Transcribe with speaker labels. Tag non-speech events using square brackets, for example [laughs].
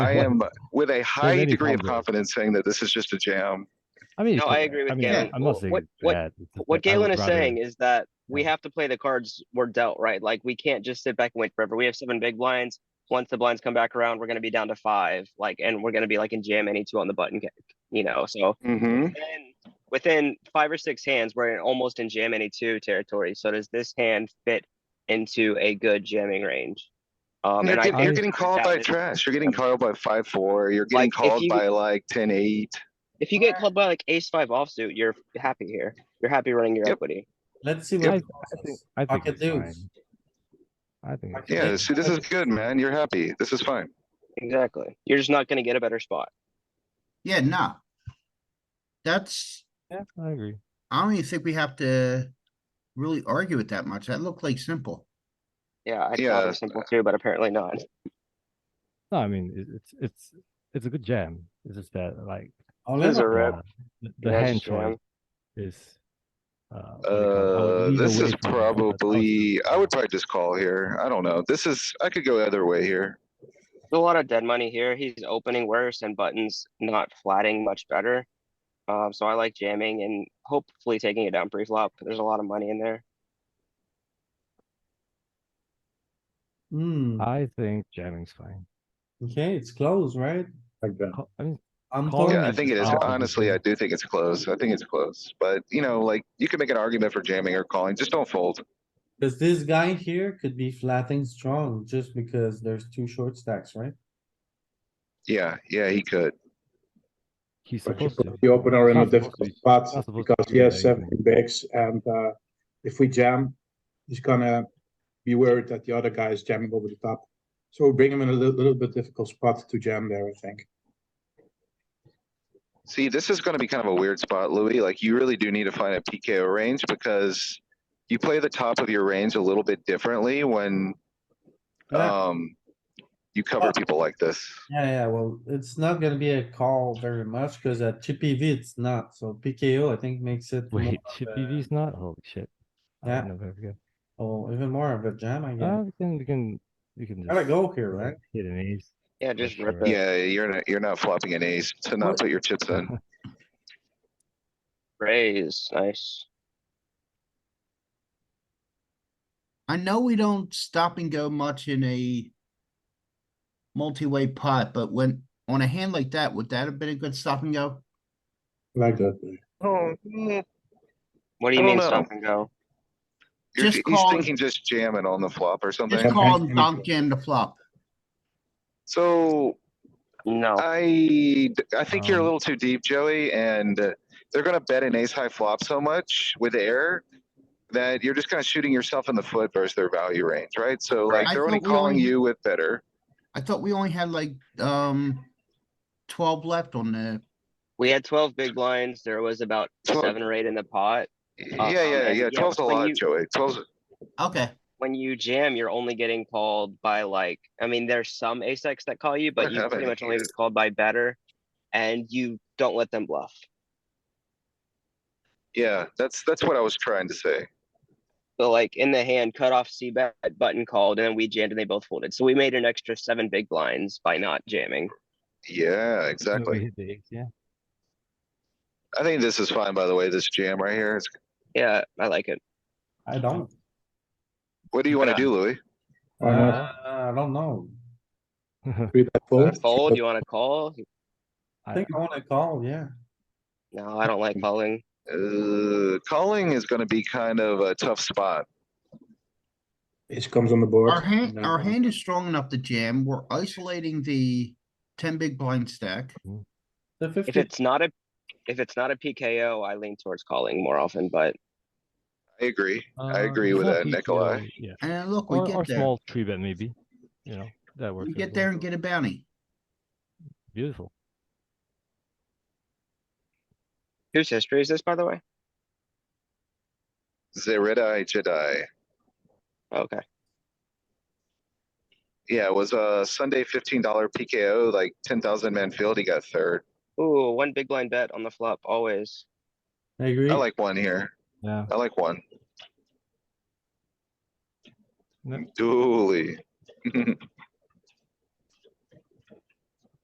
Speaker 1: I am with a high
Speaker 2: any
Speaker 1: degree of
Speaker 2: confidence.
Speaker 1: confidence saying that this is just a jam.
Speaker 2: I mean. it
Speaker 3: No,
Speaker 2: could
Speaker 3: I
Speaker 2: be.
Speaker 3: agree with
Speaker 2: I mean,
Speaker 3: Galen.
Speaker 2: I'm not
Speaker 3: Wh-
Speaker 2: saying
Speaker 3: what-
Speaker 2: it's
Speaker 3: what-
Speaker 2: bad. It's just
Speaker 3: What
Speaker 2: that I would
Speaker 3: Galen is
Speaker 2: rather-
Speaker 3: saying is that we
Speaker 2: Yeah.
Speaker 3: have to play the cards we're dealt, right? Like, we can't just sit back and wait forever. We have seven big blinds. Once the blinds come back around, we're gonna be down to five, like, and we're gonna be like in jam any two on the button, you know, so.
Speaker 1: hmm
Speaker 3: then within five or six hands, we're in almost in jam any two territory. So does this hand fit into a good jamming range? Um,
Speaker 1: You're,
Speaker 3: and I
Speaker 1: get-
Speaker 3: think
Speaker 1: you're getting called
Speaker 3: that
Speaker 1: by
Speaker 3: is-
Speaker 1: trash. You're getting called by five, four. You're getting
Speaker 3: Like, if
Speaker 1: called
Speaker 3: you-
Speaker 1: by like ten, eight.
Speaker 3: If you get called by like ace five offsuit, you're happy here. You're happy running your
Speaker 1: Yep.
Speaker 3: equity.
Speaker 4: Let's see
Speaker 2: I
Speaker 4: what.
Speaker 2: I think, I think
Speaker 4: Pocket
Speaker 2: it's fine.
Speaker 4: deuce.
Speaker 2: I think, it's-
Speaker 1: Yeah, see, this is good, man. You're happy. This is fine.
Speaker 3: Exactly. You're just not gonna get a better spot.
Speaker 5: Yeah, no. That's,
Speaker 2: yeah, I agree.
Speaker 5: I don't even think we have to really argue it that much. That looked like simple.
Speaker 3: Yeah, I thought it
Speaker 1: Yeah.
Speaker 3: was simple too, but apparently not.
Speaker 2: No, I mean, it- it's, it's, it's a good jam. It's just that like.
Speaker 4: All
Speaker 3: This is
Speaker 4: in
Speaker 3: a
Speaker 4: or-
Speaker 3: rip.
Speaker 2: uh, the- The
Speaker 3: Yeah, it's
Speaker 2: hand
Speaker 3: a jam.
Speaker 2: choice is. uh, what do you call it? I would
Speaker 1: Uh,
Speaker 2: lean
Speaker 1: this
Speaker 2: away
Speaker 1: is
Speaker 2: from it, but also-
Speaker 1: probably, I would probably just call here. I don't know. This is, I could go the other way here.
Speaker 3: There's a lot of dead money here. He's opening worse and buttons not flatting much better. Um, so I like jamming and hopefully taking it down pre-flop. There's a lot of money in there.
Speaker 4: Hmm,
Speaker 2: I think jamming's fine.
Speaker 4: okay, it's close, right?
Speaker 6: Like that.
Speaker 2: Co- I mean,
Speaker 4: I'm uh,
Speaker 2: Call
Speaker 4: calling
Speaker 1: Yeah, I think it is.
Speaker 2: Oh,
Speaker 1: Honestly,
Speaker 2: okay.
Speaker 1: I do think it's close. I think it's close. But, you know, like, you can make an argument for jamming or calling. Just don't fold.
Speaker 4: Cause this guy here could be flatting strong just because there's two short stacks, right?
Speaker 1: Yeah, yeah, he could.
Speaker 2: he's
Speaker 6: But you
Speaker 2: supposed to.
Speaker 6: put the opener in a
Speaker 2: Not supposed
Speaker 6: difficult
Speaker 2: to.
Speaker 6: spot
Speaker 2: Not supposed to
Speaker 6: because
Speaker 2: do
Speaker 6: he has
Speaker 2: that,
Speaker 6: seven
Speaker 2: yeah.
Speaker 6: bigs and, uh, if we jam, he's gonna be worried that the other guy is jamming over the top. So we bring him in a little, little bit difficult spot to jam there, I think.
Speaker 1: See, this is gonna be kind of a weird spot, Louis. Like, you really do need to find a PKO range because you play the top of your range a little bit differently when,
Speaker 4: Yeah.
Speaker 1: um, you cover people like this.
Speaker 4: Yeah, yeah, well, it's not gonna be a call very much cuz at chippy V it's not, so PKO I think makes it. more
Speaker 2: Wait,
Speaker 4: of
Speaker 2: chip
Speaker 4: a-
Speaker 2: BV's not? Holy shit. I
Speaker 4: Yeah.
Speaker 2: didn't know that. Okay.
Speaker 4: Oh, even more of a jam, I
Speaker 2: Uh,
Speaker 4: guess.
Speaker 2: we can, we can, we can.
Speaker 4: Gotta
Speaker 2: just
Speaker 4: go here, right?
Speaker 2: Hit an ace.
Speaker 3: Yeah, just rip
Speaker 2: sure.
Speaker 3: it.
Speaker 1: Yeah, you're not, you're not flopping an ace to not
Speaker 4: What-
Speaker 1: put your chips
Speaker 2: [laughs]
Speaker 1: in.
Speaker 3: Raise, nice.
Speaker 5: I know we don't stop and go much in a multi-way pot, but when, on a hand like that, would that have been a good stop and go?
Speaker 6: Like that.
Speaker 1: Oh, yeah.
Speaker 3: What do you
Speaker 1: I don't
Speaker 3: mean
Speaker 1: know.
Speaker 3: stop and go?
Speaker 1: You're-
Speaker 5: Just
Speaker 1: He's
Speaker 5: call-
Speaker 1: thinking just jamming on the flop or something.
Speaker 5: Just call
Speaker 6: Any
Speaker 5: and donk
Speaker 6: flop.
Speaker 5: jam the flop.
Speaker 1: So
Speaker 3: No,
Speaker 1: Uh, I, I think you're a
Speaker 2: Um,
Speaker 1: little too deep, Joey, and uh, they're gonna bet an ace high flop so much with air that you're just kind of shooting yourself in the foot versus their value range, right? So like
Speaker 5: I
Speaker 1: they're only
Speaker 5: thought we
Speaker 1: calling
Speaker 5: only-
Speaker 1: you with better.
Speaker 5: I thought we only had like, um, twelve left on the,
Speaker 3: we had twelve big blinds. There was about
Speaker 1: [clears throat] Twelve-
Speaker 3: seven or eight in the pot.
Speaker 1: Yeah,
Speaker 3: um,
Speaker 1: yeah,
Speaker 3: and
Speaker 1: yeah.
Speaker 3: yeah,
Speaker 1: Twelve's a
Speaker 3: when
Speaker 1: lot,
Speaker 3: you-
Speaker 1: Joey. Twelve's,
Speaker 5: okay.
Speaker 3: When you jam, you're only getting called by like, I mean, there's some ace X that call you,
Speaker 1: [laughs]
Speaker 3: but
Speaker 1: What
Speaker 3: you pretty
Speaker 1: happened
Speaker 3: much only
Speaker 1: here?
Speaker 3: get called by better. And you don't let them bluff.
Speaker 1: yeah, that's, that's what I was trying to say.
Speaker 3: So like in the hand, cut off C bet, button called, and then we jammed and they both folded. So we made an extra seven big blinds by not jamming.
Speaker 1: Yeah,
Speaker 2: So we
Speaker 1: exactly.
Speaker 2: hit the ace, Yeah.
Speaker 1: I think this is fine, by the way, this jam right here. It's-
Speaker 3: Yeah, I like it.
Speaker 4: I don't.
Speaker 1: What do you wanna
Speaker 3: Yeah.
Speaker 1: do, Louis?
Speaker 6: Why not?
Speaker 4: Uh, I don't know.
Speaker 6: Three bet fold.
Speaker 3: Fold, you wanna call?
Speaker 4: I
Speaker 2: I-
Speaker 4: think I wanna call, yeah.
Speaker 3: No, I don't like calling.
Speaker 1: Uh, calling is gonna be kind of a tough spot.
Speaker 6: Ace comes on the board.
Speaker 5: Our hand,
Speaker 6: No.
Speaker 5: our hand is strong enough to jam. We're isolating the ten big blind stack.
Speaker 4: The
Speaker 3: If
Speaker 4: fifty,
Speaker 3: it's not a, if it's not a PKO, I lean towards calling more often, but
Speaker 1: I agree. I
Speaker 2: Uh,
Speaker 1: agree
Speaker 2: it's
Speaker 1: with
Speaker 2: not
Speaker 1: that,
Speaker 2: PKO,
Speaker 1: Nikolai.
Speaker 2: Yeah.
Speaker 5: And look, we
Speaker 2: Or, or
Speaker 5: get there.
Speaker 2: small tree bet maybe, you know, that works.
Speaker 5: We
Speaker 2: as
Speaker 5: get
Speaker 2: well.
Speaker 5: there and get a bounty.
Speaker 2: Beautiful.
Speaker 3: whose history is this, by the way?
Speaker 1: Zeridai Jedi.
Speaker 3: Okay,
Speaker 1: Yeah, it was a Sunday fifteen dollar PKO, like ten thousand man field. He got third.
Speaker 3: ooh, one big blind bet on the flop, always.
Speaker 4: I agree.
Speaker 1: I like one here.
Speaker 2: Yeah.
Speaker 1: I like one.
Speaker 2: No.
Speaker 1: Dooley.